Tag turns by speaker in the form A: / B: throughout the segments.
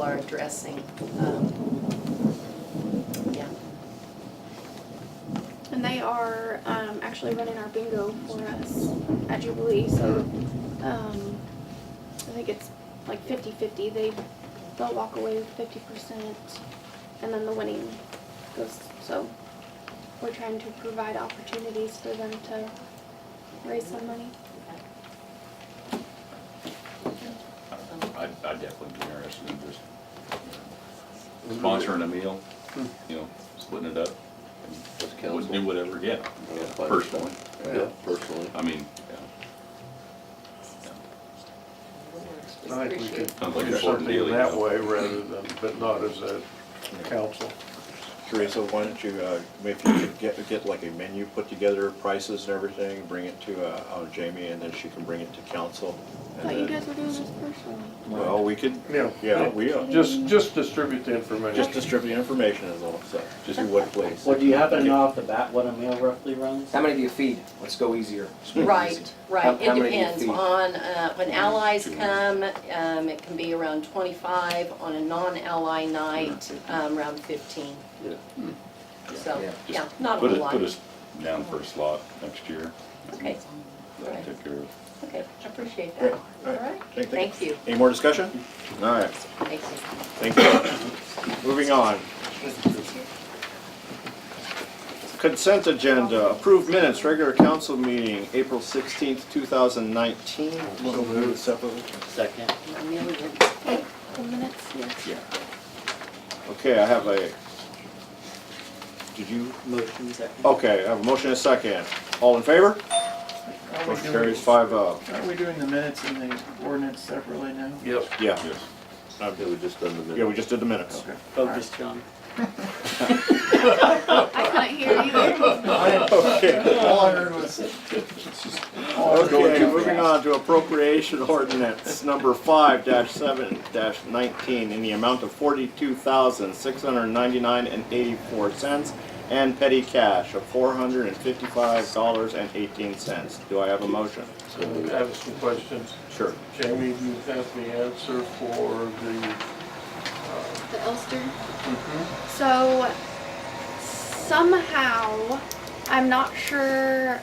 A: are addressing. Um, Yeah,
B: And they are um, actually running our bingo for us at Jubilee. So um, I think it's like 50 50. They, they'll walk away with 50%, and then the winning goes. So we're trying to provide opportunities for them to raise some money.
C: I'd, I'd definitely be interested in just you know, sponsoring a meal, you know, splitting it up. and
D: As
C: Would do
D: council.
C: whatever, yeah,
D: Yeah,
C: yeah, personally,
D: Yeah, personally.
C: I mean, yeah.
E: I think we could
C: Sounds like an important
E: certainly
C: deal.
E: in that way rather than, but not as a council.
F: Teresa, why don't you, uh, if you could get, get like a menu put together, prices and everything, bring it to, uh, uh, Jamie, and then she can bring it to council.
B: I
F: and
B: thought you
F: then-
B: guys were doing this personally.
F: Well, we could,
E: Yeah.
F: yeah, we, uh,
E: Just, just distribute the
F: just
E: information.
F: distribute information is all, so, just do what place.
G: Well, do you happen to know off the bat what a meal roughly runs?
H: How many do you feed? Let's go easier.
A: right,
H: How-
A: right, it
H: how many do you
A: depends
H: feed?
A: on, uh, when allies come, um, it can be around twenty-five, on a non-ally night, um, around fifteen.
D: Yeah.
A: So,
H: Yeah.
A: yeah, not a
C: Put
A: whole
C: us,
A: lot.
C: put us down for a slot next year.
A: Okay, all right,
C: Take care of
A: okay, I appreciate
F: Yeah,
A: that. All
F: all right.
A: right,
F: Thank-
A: thank you,
F: Any more discussion? All right,
A: thank you.
F: thank you. Moving on. Consent agenda, approved minutes, regular council meeting, April sixteenth, two thousand nineteen. So moved separately.
G: Second.
A: A million.
B: The minutes, yes.
F: Okay, I have a, did you,
G: Motion second.
F: okay, I have a motion and a second. All in favor?
I: Are we
F: Motion carries
I: doing,
F: five oh.
I: are we doing the minutes and the ordinance separately now?
E: Yes.
F: Yeah,
C: it. Yes.
D: Yeah, we just done the minutes.
F: yeah, we just did the minutes.
I: Okay.
G: Focus, John.
B: I couldn't hear you.
F: Okay,
I: All I heard was.
F: okay, moving on to appropriation ordinance number five dash seven dash nineteen in the amount of forty-two thousand, six hundred ninety-nine and eighty-four cents and petty cash of four hundred and fifty-five dollars and eighteen cents. Do I have a motion?
E: I have some questions.
F: Sure.
E: Jamie, you have the answer for the,
B: The Ulster. So somehow, I'm not sure,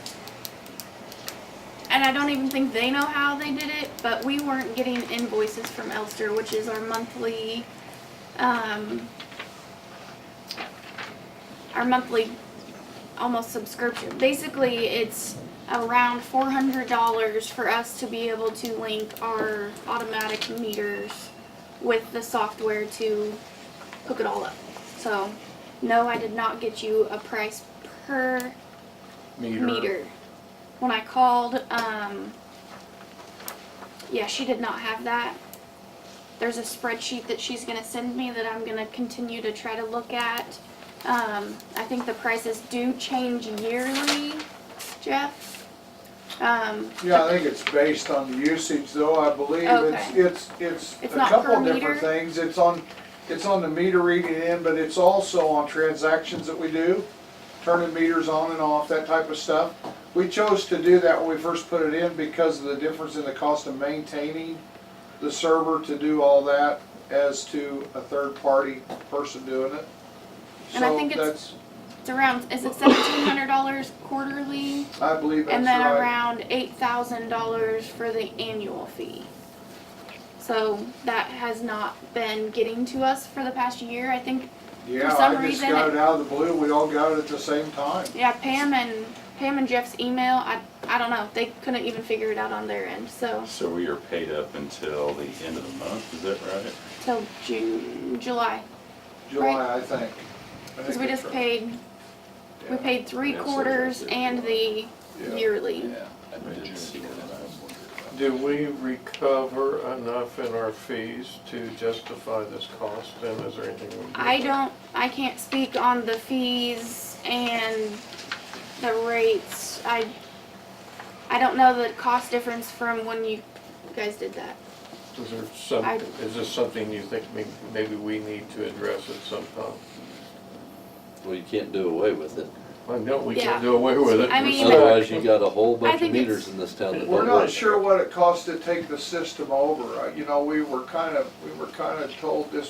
B: and I don't even think they know how they did it, but we weren't getting invoices from Elster, which is our monthly, um, our monthly almost subscription. Basically, it's around $400 for us to be able to link our automatic meters with the software to hook it all up. So, no, I did not get you a price per
E: meter.
B: meter. When I called, um, yeah, she did not have that. There's a spreadsheet that she's gonna send me that I'm gonna continue to try to look at. Um, I think the prices do change yearly, Jeff. Um,
J: Yeah, I think it's based on the usage though, I believe. It's,
B: Okay.
J: it's, it's
B: It's
J: a
B: not
J: couple
B: per
J: of different
B: meter?
J: things. It's on, it's on the meter reading in, but it's also on transactions that we do, turning meters on and off, that type of stuff. We chose to do that when we first put it in because of the difference in the cost of maintaining the server to do all that as to a third-party person doing it.
B: And I think
J: So
B: it's-
J: that's,
B: it's around, is it seventeen hundred dollars quarterly?
J: I believe that's right.
B: And then around eight thousand dollars for the annual fee. So that has not been getting to us for the past year, I think,
J: Yeah,
B: some
J: I just
B: reason
J: got
B: it-
J: it out of the blue. We all got it at the same time.
B: yeah, Pam and, Pam and Jeff's email, I, I don't know, they couldn't even figure it out on their end, so,
C: So we are paid up until the end of the month, is that right?
B: till June, July.
J: July, I think. I
B: Cause
J: think
B: we
J: that's
B: just
J: right.
B: paid, we
J: Yeah.
B: paid three
C: Yeah, so
B: quarters
C: that's it.
B: and the
J: Yeah.
B: yearly.
C: I didn't see that. I was wondering
E: Do we recover enough in our fees to justify this cost and is there anything? we can do?
B: I don't, I can't speak on the fees and the rates. I, I don't know the cost difference from when you guys did that.
E: Is there some,
B: I-
E: is this something you think may- maybe we need to address at some time?
D: Well, you can't do away with it.
E: I know we
B: Yeah.
E: can't do away with it.
B: I mean,
E: We're stuck.
D: Otherwise, you got a whole
B: I
D: bunch of
B: think it's-
D: meters in this town that don't
J: We're
D: work.
J: not sure what it costs to take the system over. Uh, You know, we were kind of, we were kind of told this